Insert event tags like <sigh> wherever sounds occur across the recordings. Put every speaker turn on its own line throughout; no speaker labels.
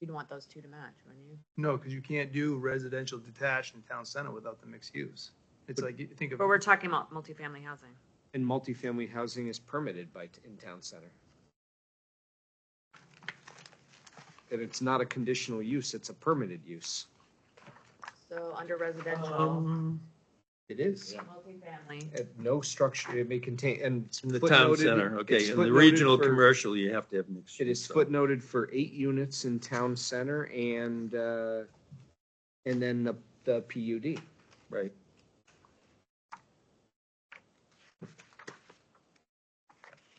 You'd want those two to match, wouldn't you?
No, because you can't do residential detached in town center without the mixed use. It's like, you think of,
But we're talking about multifamily housing.
And multifamily housing is permitted by, in town center. That it's not a conditional use, it's a permitted use.
So under residential,
um,
It is.
multifamily,
And no structure, it may contain, and.
In the town
footnoted-
center, okay,
it's
in the
footnoted
regional
for-
commercial, you have to have mixed.
It is
use, so-
footnoted for eight units in town center and, uh, and then the, the PUD.
Right.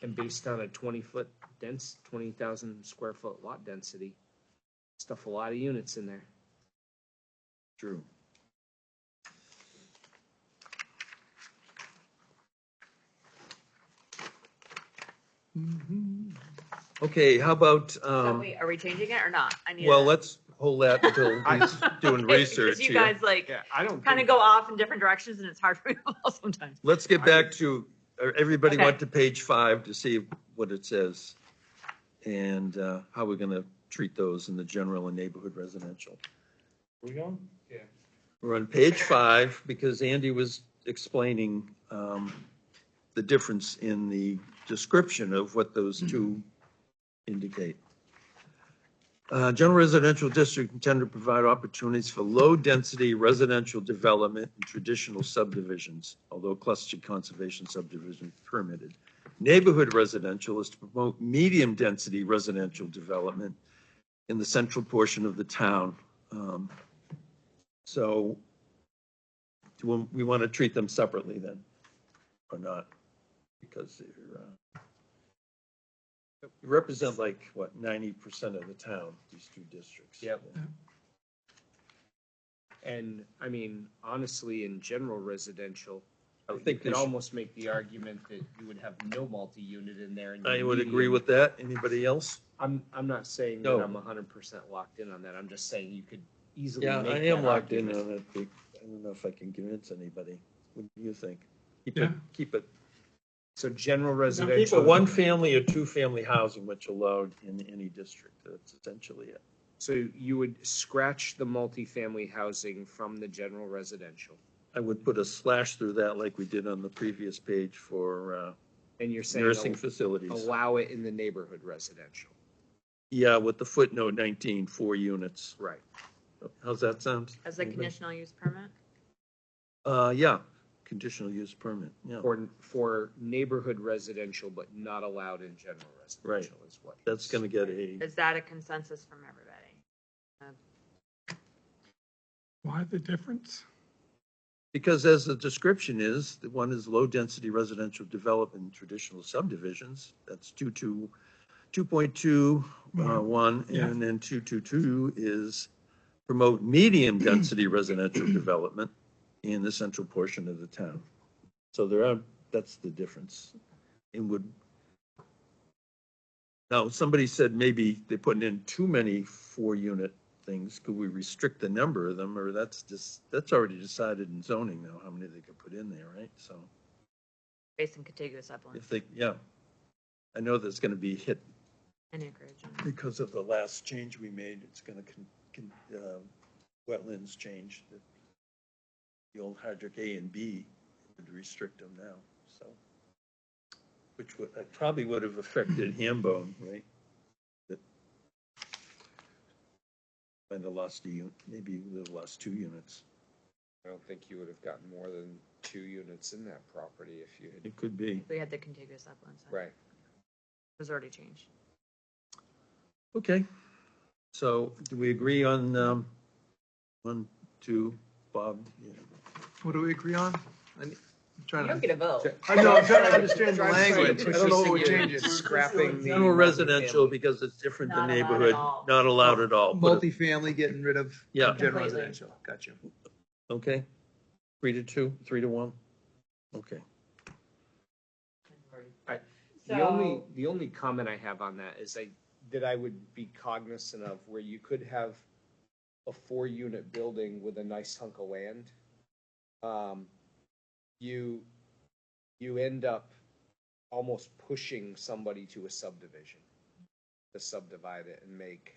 And based on a twenty foot dense, twenty thousand square foot lot density, stuff a lot of units in there.
True. Mm-hmm. Okay, how about,
so
um,
wait, are we changing it or not? I need.
well,
a-
let's hold
<laughs>
that until he's doing
Okay, because
research
You
here.
guys like
I don't.
kind of go off in different directions and it's hard for me to follow sometimes.
Let's get back to, uh, everybody
Okay.
went to page five to see what it says. And, uh, how we're gonna treat those in the general and neighborhood residential.
we going?
We're on page five because Andy was explaining um, the difference in the description of what those two indicate. Uh, General residential district intended to provide opportunities for low-density residential development and traditional subdivisions, although clustered conservation subdivision permitted. Neighborhood residential is to promote medium-density residential development in the central portion of the town. Um, so do we- we want to treat them separately then, or not? Because they're, uh, they represent like, what, ninety percent of the town, these two districts?
Yep. And, I mean, honestly, in general residential,
I
you
would think,
could
they should-
almost make the argument that you would have no multi-unit in there. and
I
your
would agree
median-
with that. Anybody else?
I'm, I'm not saying that
No.
I'm hundred percent locked in on that, I'm just saying you could easily
Yeah,
make
I am
that
locked in
argument.
on it. but I don't know if I can convince anybody. What do you think? Keep it,
Yeah.
keep it,
So general
keep
residential.
it one-family or two-family housing, which allowed in any district. That's essentially it.
So you would scratch the multifamily housing from the general residential,
I would put a slash through that like we did on the previous page for uh,
and you're saying
nursing
al-
facilities.
allow it in the neighborhood residential.
Yeah, with the footnote 19, four units.
Right.
How's that sound?
As a conditional use permit?
Uh, yeah, conditional use permit, yeah.
For, for neighborhood residential, but not allowed in general residential is what.
That's gonna get a,
Is that a consensus from everybody?
Why the difference?
because as the description is, the one is low-density residential development in traditional subdivisions. That's 22, 2.2, uh,
Mhm.
one,
Yeah.
and then 222 is promote medium-density residential development in the central portion of the town. So there are, that's the difference. And would, now, somebody said maybe they're putting in too many four-unit things. Could we restrict the number of them, or that's just, that's already decided in zoning now, how many they could put in there, right? So
Based in contiguous upland
if they, yeah. I know that's gonna be hit
and acreage. and-
because of the last change we made, it's gonna con, con, uh, wetlands change. The- The old hydric A and B would restrict them now, so. Which would, that probably would have affected Hambone, right? That- And the lost a unit, maybe the lost two units.
I don't think you would have gotten more than two units in that property if you had,
It could be.
We had the contiguous upland side. It
right.
was already changed.
Okay. So do we agree on, um, one, two, Bob? Yeah.
What do we agree on? I ne- I'm trying to,
get a vote.
I know, I'm trying to understand the language. I
Push
don't know what
this
we're changing.
into Scrapping the.
General residential, because it's different
Not
than
allowed at
neighborhood,
all.
not allowed at all. Put it-
Multifamily getting rid of
Yeah,
general
Completely.
residential. Got you.
okay. Three to two, three to one? Okay.
The only, the only comment I have on that is I, that I would be cognizant of where you could have a four-unit building with a nice hunk of land. Um, you, you end up almost pushing somebody to a subdivision to subdivide it and make